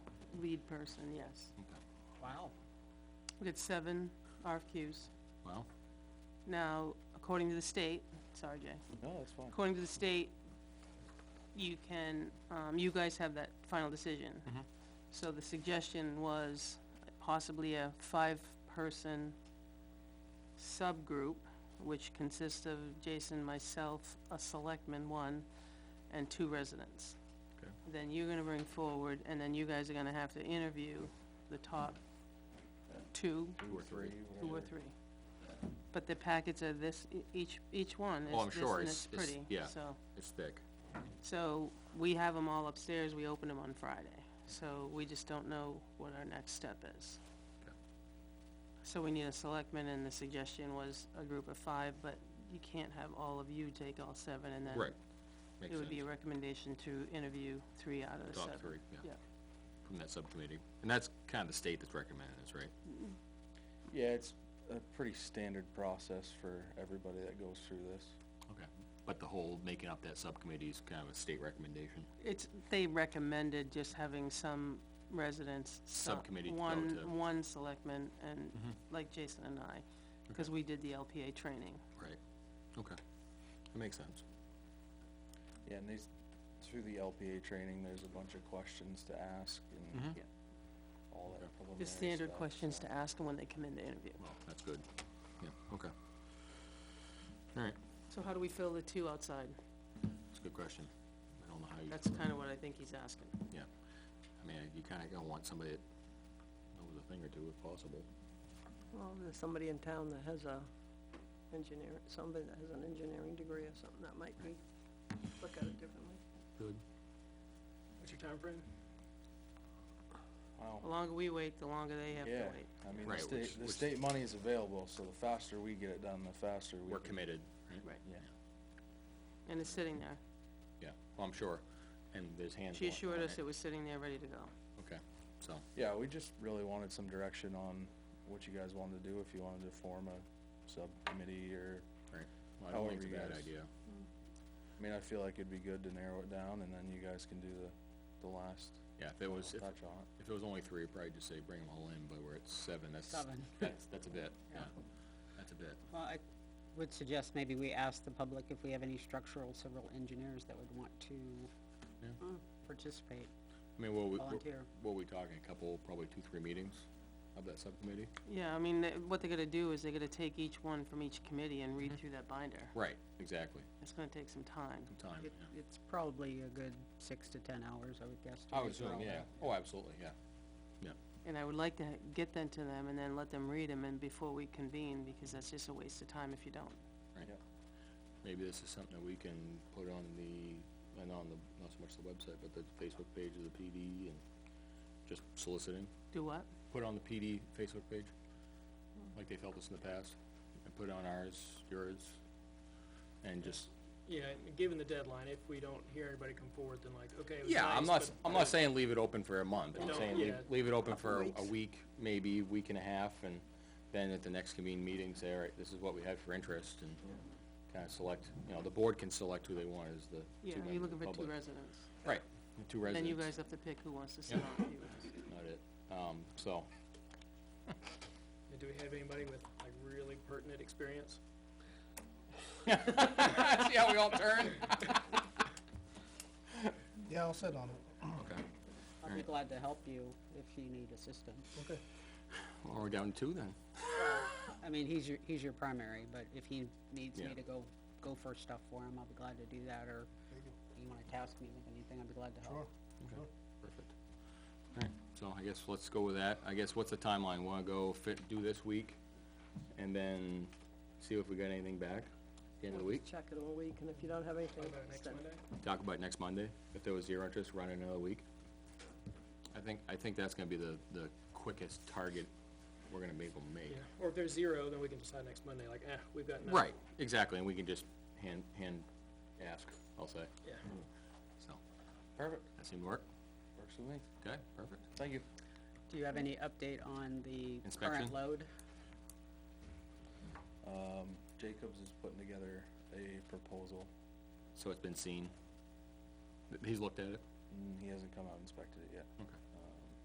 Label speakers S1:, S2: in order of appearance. S1: lead person, yes.
S2: Wow.
S1: We did seven RFQs.
S2: Wow.
S1: Now, according to the state, sorry, Jay,
S3: No, that's fine.
S1: according to the state, you can, um, you guys have that final decision.
S2: Mhm.
S1: So the suggestion was possibly a five-person subgroup, which consists of Jason, myself, a selectman, one, and two residents.
S2: Okay.
S1: Then you're gonna bring forward, and then you guys are gonna have to interview the top two,
S2: Two or three.
S1: two or three. But the packets are this, e- each, each one
S2: Oh, I'm
S1: is this
S2: sure,
S1: and
S2: it's-
S1: it's
S2: it's-
S1: pretty,
S2: yeah.
S1: so.
S2: It's thick.
S1: So, we have them all upstairs, we open them on Friday, so we just don't know what our next step is.
S2: Okay.
S1: So we need a selectman, and the suggestion was a group of five, but you can't have all of you take all seven, and then
S2: Right. Makes
S1: it would be
S2: sense.
S1: a recommendation to interview three out of the seven.
S2: Top three, yeah,
S1: Yeah,
S2: from that subcommittee. And that's kind of the state that's recommending this, right?
S3: Yeah, it's a pretty standard process for everybody that goes through this.
S2: Okay. But the whole making up that subcommittee is kind of a state recommendation.
S1: it's, they recommended just having some residents. so-
S2: Subcommittee to go
S1: One,
S2: to. Mm-hmm.
S1: one selectman, and, like Jason and I, because we did the LPA training.
S2: Right. Okay. That makes sense.
S3: Yeah, and these, through the LPA training, there's a bunch of questions to ask and
S2: Mhm.
S1: Yeah.
S3: all that preliminary stuff.
S1: The standard questions
S3: so.
S1: to ask them when they come in to interview.
S2: Well, that's good. Yeah, okay. All right,
S1: So how do we fill the two outside?
S2: that's a good question. I don't know how you,
S1: That's kind of what I think he's asking.
S2: yeah. I mean, you kinda gonna want somebody that knows a thing or two if possible.
S4: Well, there's somebody in town that has a engineer, somebody that has an engineering degree or something, that might be, look at it differently.
S2: Good.
S4: What's your timeframe?
S3: Wow.
S1: The longer we wait, the longer they Oh, have
S3: Yeah,
S1: to wait.
S3: I mean, the
S2: Right, which-
S3: state, the
S2: which-
S3: state money is available, so the faster we get it done, the faster we.
S2: We're
S3: can-
S2: committed, right?
S1: Right.
S3: Yeah.
S1: And it's sitting there.
S2: Yeah, well, I'm sure, and there's hands.
S1: She
S2: on-
S1: assured
S2: on
S1: us it was sitting there, ready to go.
S2: Okay, so,
S3: Yeah, we just really wanted some direction on what you guys wanted to do, if you wanted to form a subcommittee or,
S2: right, well, I don't think it's a
S3: However you
S2: bad
S3: guys-
S2: idea.
S3: I mean, I feel like it'd be good to narrow it down and then you guys can do the, the last
S2: Yeah, if it was, if,
S3: touch on it.
S2: if it was only three, I'd probably just say bring them all in, but we're at seven, that's,
S5: Seven.
S2: that's, that's a bit, yeah,
S5: Yeah.
S2: that's a bit.
S5: Well, I would suggest maybe we ask the public if we have any structural civil engineers that would want to uh,
S2: Yeah.
S5: participate.
S2: I mean, what we, what-
S5: Volunteer.
S2: what we talking, a couple, probably two, three meetings of that subcommittee?
S1: Yeah, I mean, they- what they're gonna do is they're gonna take each one from each committee and read through that binder.
S2: Right, exactly,
S1: It's gonna take some time.
S2: some time,
S5: It,
S2: Oh, yeah.
S5: it's probably a good six to ten hours, I would guess. to
S2: I
S5: go
S2: would
S5: through
S2: assume,
S5: all
S2: yeah,
S5: that.
S2: oh, absolutely, yeah, yeah,
S1: And I would like to get them to them and then let them read them and before we convene, because that's just a waste of time if you don't.
S2: right.
S3: Yep.
S2: Maybe this is something that we can put on the, and on the, not so much the website, but the Facebook page of the PD and just soliciting.
S1: Do what?
S2: put on the PD Facebook page, like they've helped us in the past, and put on ours, yours, and just.
S6: Yeah, and given the deadline, if we don't hear anybody come forward, then like, okay, it was
S2: Yeah, I'm not,
S6: nice,
S2: s-
S6: but-
S2: I'm not saying leave it open for a month, I'm
S6: No,
S2: saying leave,
S6: yeah.
S2: leave it open for
S5: Couple
S2: a
S5: weeks.
S2: week, maybe week and a half, and then at the next convened meeting, say, all right, this is what we had for interest, and kinda select, you know, the board can select who they want as the
S1: Yeah,
S2: two members
S1: you're
S2: of the
S1: looking for two
S2: public.
S1: residents.
S2: Right, the two
S1: Then
S2: residents.
S1: you guys have to pick who wants to sit
S2: Yeah.
S1: on it. you guys.
S2: Not it, um, so,
S6: Do we have anybody with like really pertinent experience?
S2: see how we all turn?
S7: Yeah, I'll sit on it.
S2: Okay,
S5: I'd be
S2: Alright.
S5: glad to help you if you need assistance.
S7: Okay.
S2: well, we're down to two then.
S5: I mean, he's your, he's your primary, but if he needs me
S2: Yeah.
S5: to go, go for stuff for him, I'll be glad to do that, or you wanna task me with anything, I'd be glad to
S7: Sure.
S5: help.
S2: Okay, perfect. All right, so I guess let's go with that. I guess what's the timeline? Wanna go fit, do this week, and then see if we got anything back at the end of the
S4: We'll
S2: week?
S4: just Check it all week, and if you don't have anything,
S6: What about next
S4: send-
S6: Monday?
S2: Talk about next Monday, if there was zero interest, run another week. I think, I think that's gonna be the, the quickest target we're gonna be able to make.
S6: Yeah, or if there's zero, then we can decide next Monday, like, eh, we've got none.
S2: Right, exactly, and we can just hand, hand ask, I'll say,
S6: Yeah.
S2: so.
S3: Perfect,
S2: That seemed to work?
S3: works with me,
S2: Okay, perfect.
S3: thank you.
S5: Do you have any update on the
S2: Inspection?
S5: current load?
S3: Um, Jacobs is putting together a proposal,
S2: So it's been seen? He's looked at it?
S3: and he hasn't come out and inspected it yet.
S2: Okay.